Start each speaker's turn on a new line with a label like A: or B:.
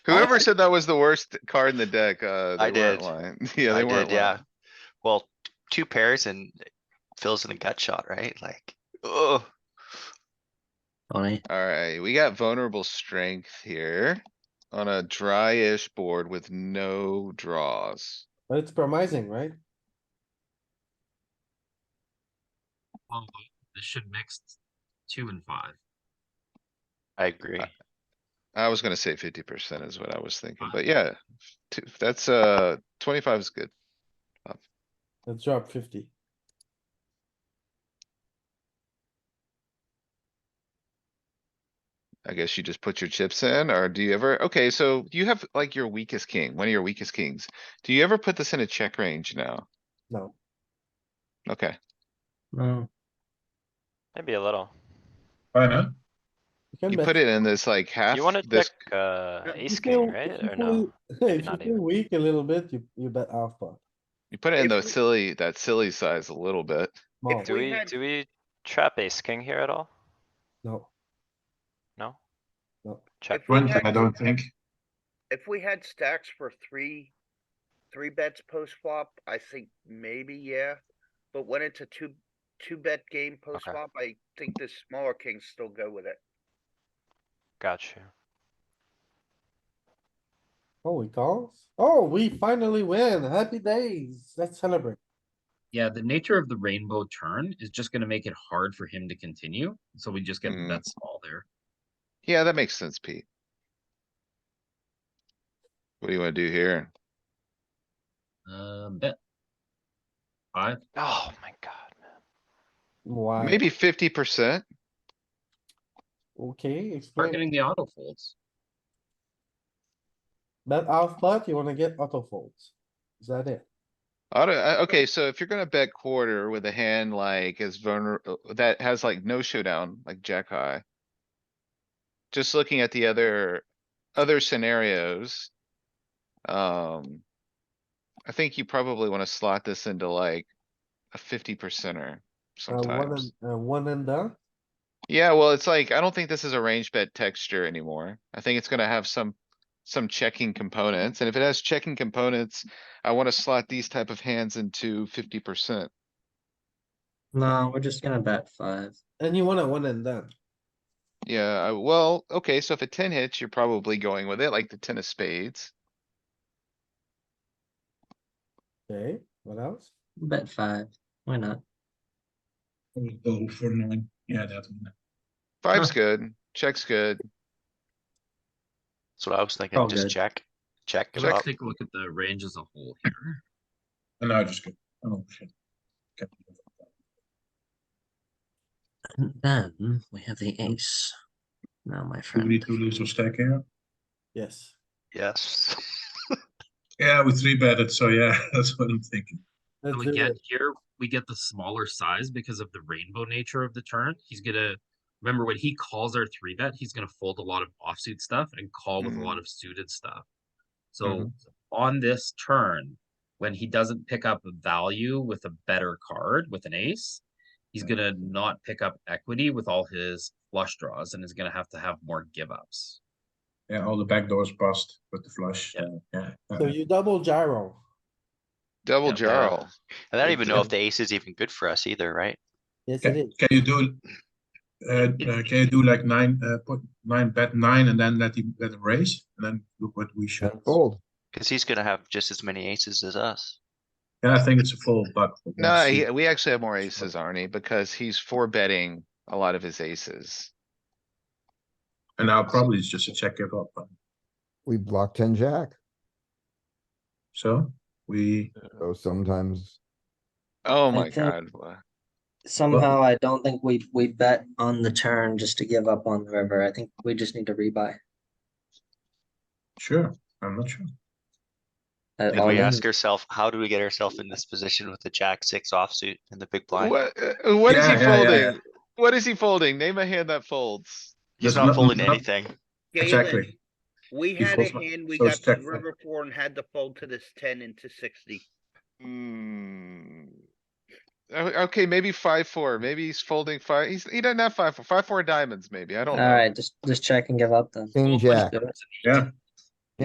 A: Trevor said that was the worst card in the deck, uh.
B: I
A: they weren't
B: did.
A: lying. Yeah,
B: I
A: they weren't.
B: did, yeah.
A: lying.
B: Well, t- two pairs and it fills in a gut shot, right? Like, oh,
C: Funny.
A: Alright, we got vulnerable strength here on a dry-ish board with no draws.
D: But it's promising, right?
E: Well, This should mix two and five.
B: I agree.
A: I was gonna say fifty percent is what I was thinking, but yeah, two- that's, uh, twenty-five is good.
D: Let's drop fifty.
A: I guess you just put your chips in, or do you ever, okay, so you have like your weakest king, one of your weakest kings. Do you ever put this in a check range now?
D: No,
A: Okay,
C: No.
F: Maybe a little.
G: I know.
D: you can
A: you
D: bet.
A: put it in this like half,
F: You wanna
A: this,
F: check, uh,
D: If you
F: ace
D: feel-
F: king,
D: if
F: right?
D: you
F: Or no?
D: feel- If you
F: not
D: feel
F: even.
D: weak a little bit, you, you bet half pot.
A: you put it in
G: if
A: the
G: we-
A: silly, that silly size a little bit.
D: Small,
F: Do
G: we
F: we,
G: had-
F: do we trap ace king here at all?
D: no,
F: No?
D: No.
F: Check.
G: It went, I don't think.
H: If we had stacks for three, three bets post flop, I think maybe, yeah. But when it's a two, two bet game post flop, I think the smaller kings still go with it.
F: Got you.
D: oh, we call? Oh, we finally win, happy days, let's celebrate.
E: Yeah, the nature of the rainbow turn is just gonna make it hard for him to continue, so we just get
A: Mm.
E: that small there.
A: Yeah, that makes sense, Pete. What do you wanna do here?
E: Um, bet. Five,
F: Oh my god, man.
D: Why?
A: Maybe fifty percent?
D: Okay, explain,
E: targeting the auto folds.
D: bet half pot, you wanna get auto folds, is that it?
A: Auto, uh, okay, so if you're gonna bet quarter with a hand like as vulnerable, that has like no showdown, like jack high. Just looking at the other, other scenarios. Um. I think you probably wanna slot this into like a fifty percenter
D: Uh, one
A: sometimes.
D: and, uh, one and done,
A: Yeah, well, it's like, I don't think this is a range bet texture anymore. I think it's gonna have some, some checking components, and if it has checking components, I wanna slot these type of hands into fifty percent.
C: No, we're just gonna bet five.
D: and you want a one and done,
A: Yeah, I- well, okay, so if a ten hits, you're probably going with it, like the ten of spades.
D: okay, what else?
C: Bet five. Why not?
G: Oh, for nine. Yeah, that one.
A: Five's good, check's good.
B: That's what I was thinking,
C: Oh,
B: just
C: good.
B: check, check it
E: Let's
B: up.
E: take a look at the range as a whole here.
G: And now I just go. Oh, shit. Okay.
C: And then we have the ace. Now, my
G: Do we
C: friend.
G: need to lose or stack here?
D: Yes,
B: Yes.
G: Yeah, we three betted, so yeah, that's what I'm thinking.
D: let's
E: And
D: do
E: we get
D: it,
E: here, we get the smaller size because of the rainbow nature of the turn. He's gonna, remember when he calls our three bet, he's gonna fold a lot of offsuit stuff and call with a
A: Mhm.
E: lot of suited stuff. So on this turn, when he doesn't pick up value with a better card with an ace, he's gonna not pick up equity with all his flush draws and is gonna have to have more give ups.
G: Yeah, all the back doors passed with the flush.
E: Yeah.
G: uh, Yeah.
D: so
G: uh,
D: you double gyro,
A: Double
B: Yeah, there.
A: jarl.
B: And I don't
A: It
B: even know if
A: depends.
B: the ace is even good for us either, right?
D: yes it
G: Can,
D: is,
G: can you do, uh, uh, can you do like nine, uh, put nine, bet nine and then let him, let him raise? And then look what we should.
D: Oh.
I: Fold.
B: Cause he's gonna have just as many aces as us.
G: Yeah, I think it's a fold, but.
A: No, he- we actually have more aces, Arnie, because he's four betting a lot of his aces.
G: And now probably it's just a check give up.
I: We block ten jack,
G: So we,
I: so sometimes
A: Oh
C: I
A: my
C: think-
A: god. wha-
C: Somehow, I don't think we we bet on the turn just to give up on the river. I think we just need to rebuy.
G: sure, I'm not sure.
C: at
G: Did
B: And
C: all
B: we
C: in.
B: ask ourselves, how do we get ourselves in this position with the jack six offsuit and the big blind?
A: What, uh, what is
G: Yeah,
A: he
G: yeah, yeah, yeah.
A: folding? What is he folding? Name a hand that folds.
B: He's
G: There's
B: not
G: not-
B: folding
G: not-
B: anything.
G: Exactly.
H: Galen, We
G: He
H: had a
G: folds my-
H: hand, we
G: so
H: got to
G: stack-
H: the river four and had to fold to this ten into sixty.
A: Hmm. O- Okay, maybe five, four, maybe he's folding five, he's, he doesn't have five, four, five, four diamonds maybe, I don't
C: All
A: know.
C: right, just just check and give up then.
I: king
E: Well, let's
I: jack,
C: Do it.
G: Yeah,